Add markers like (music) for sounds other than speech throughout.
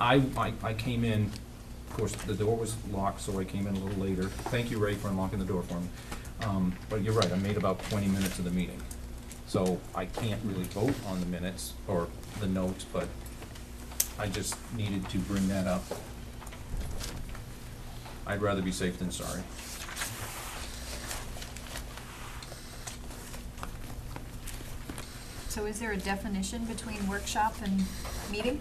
I, I, I came in, of course, the door was locked, so I came in a little later. Thank you, Ray, for unlocking the door for me. Um, but you're right, I made about twenty minutes of the meeting. So I can't really vote on the minutes or the notes, but I just needed to bring that up. I'd rather be safe than sorry. So is there a definition between workshop and meeting?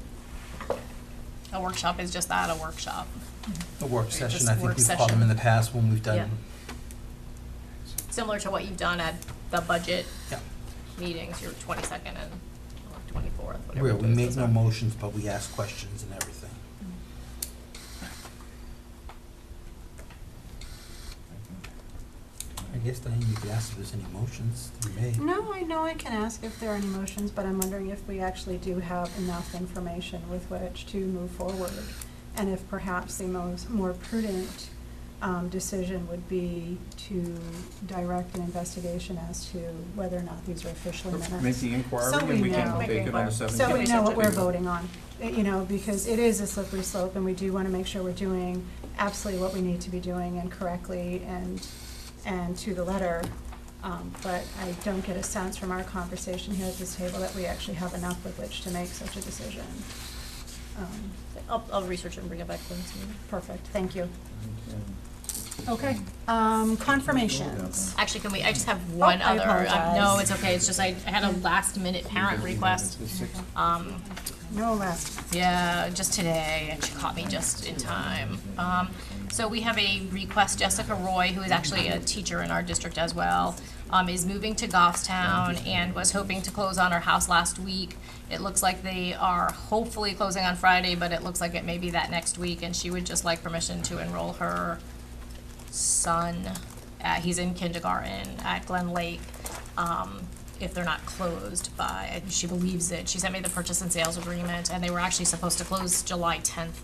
A workshop is just that, a workshop. A work Right, session, just I work think we've called session. them in the past when we've done, Similar to what you've done at the budget yeah. meetings, your twenty-second and twenty-fourth, whatever. Where we those- make those no are. motions, but we ask questions and everything. Mm-hmm. I guess, Diane, you could ask if there's any motions to be made. No, I know I can ask if there are any motions, but I'm wondering if we actually do have enough information with which to move forward. And if perhaps the most, more prudent, um, decision would be to direct an investigation as to whether or not these are officially minutes. Make the inquiry So and we we can know. take it on the seventeenth. So we know what we're Table. voting on, uh, you know, because it is a slippery slope, and we do want to make sure we're doing absolutely what we need to be doing and correctly and, and to the letter. Um, But I don't get a sense from our conversation here at this table that we actually have enough with which to make such a decision. Um, I'll, I'll research and bring it back to us. Perfect, thank you. Okay. Um, Confirmations. Actually, can we, Oh, I just have one I other, um, no, apologize. it's okay, it's just I I had a last minute parent request. Um, No last. Yeah, just today, and she caught me just in time. Um, so we have a request, Jessica Roy, who is actually a teacher in our district as well, um, is moving to Goffstown and was hoping to close on her house last week. It looks like they are hopefully closing on Friday, but it looks like it may be that next week, and she would just like permission to enroll her son. Uh, he's in kindergarten at Glen Lake. Um, if they're not closed by, and she believes it. She sent me the purchase and sales agreement, and they were actually supposed to close July tenth.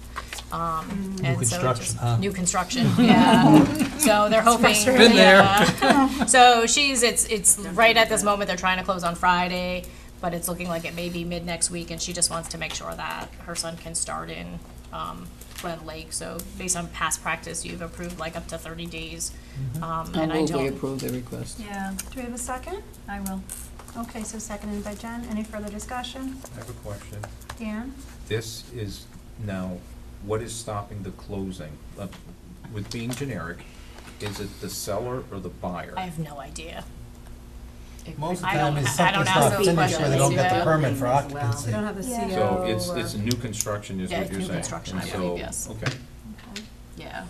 Um, and so it construction, just- huh? New construction, yeah. So they're hoping. Been there. yeah. So she's, it's, it's right at this moment, they're trying to close on Friday, but it's looking like it may be mid next week, and she just wants to make sure that her son can start in, um, Glen Lake. So based on past practice, you've approved like up to thirty days. Mm-hmm. Um, I and I move we don't, approve the request. Yeah, Do we have a second? I will. Okay, so seconded by Jen. Any further discussion? I have a question. Dan? This is now, what is stopping the closing? Uh, With being generic, is it the seller or the buyer? I have no idea. Most of the I time don't- it's I don't something's ask not those finished where they don't questions, get yeah. the permit for As well. occupancy. We don't have the Yeah. CEO. So it's, or- it's new construction is Yeah, what it's you're new saying? construction, And I so- believe, yes. Okay. Okay. Yeah.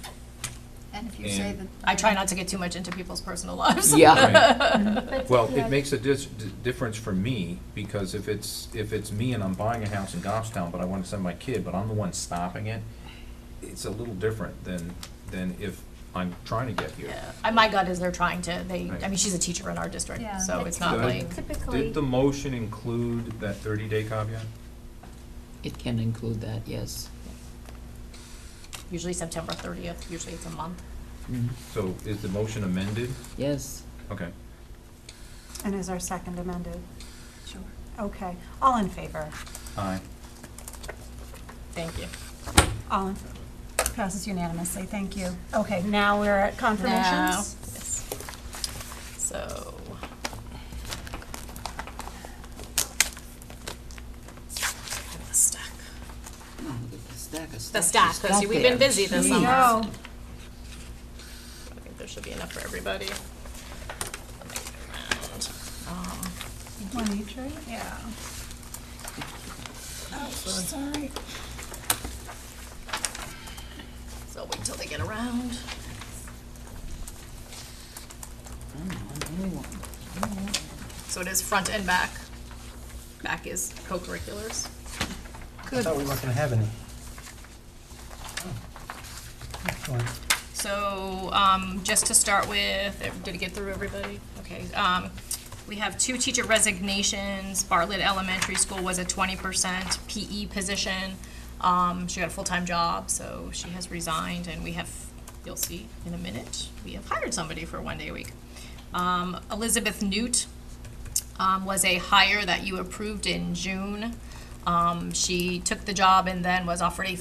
And if you say And- that. I try not to get too much into people's personal lives. Yeah. (laughs) But, Well, yeah, it makes a dis- d- difference for me, because if it's, if it's me and I'm buying a house in Goffstown, but I wanna send my kid, but I'm the one stopping it, it's a little different than, than if I'm trying to get here. Yeah. And my gut is they're trying to, they, I Right. mean, she's a teacher in our district, Yeah. so it's not Good. like, Typically, Did the motion include that thirty-day caveat? It can include that, yes. usually September thirtieth, usually it's a month. Mhm. So is the motion amended? Yes. Okay. And is our second amended? sure. Okay, all in favor? Aye. Thank you. All in, passes unanimously, thank you. Okay, now we're at confirmations. Yes. So. Kind of a stack. Oh, look at The stack of The stuff stack, she's because got we've there. been busy this Here we summer. go. I think there should be enough for everybody. Let me get around. Um, One each, right? Yeah. Sorry. So wait till they get around. I don't know, maybe one. So it is front and back. Back is co-curriculars. I thought we weren't gonna have any. Oh. Excellent. So, um, just to start with, eh, did it get through everybody? Okay, um, we have two teacher resignations. Bartlett Elementary School was a twenty percent PE position. Um, she got a full-time job, so she has resigned, and we have, you'll see in a minute, we have hired somebody for one day a week. Um, Elizabeth Newt, um, was a hire that you approved in June. Um, she took the job and then was offered a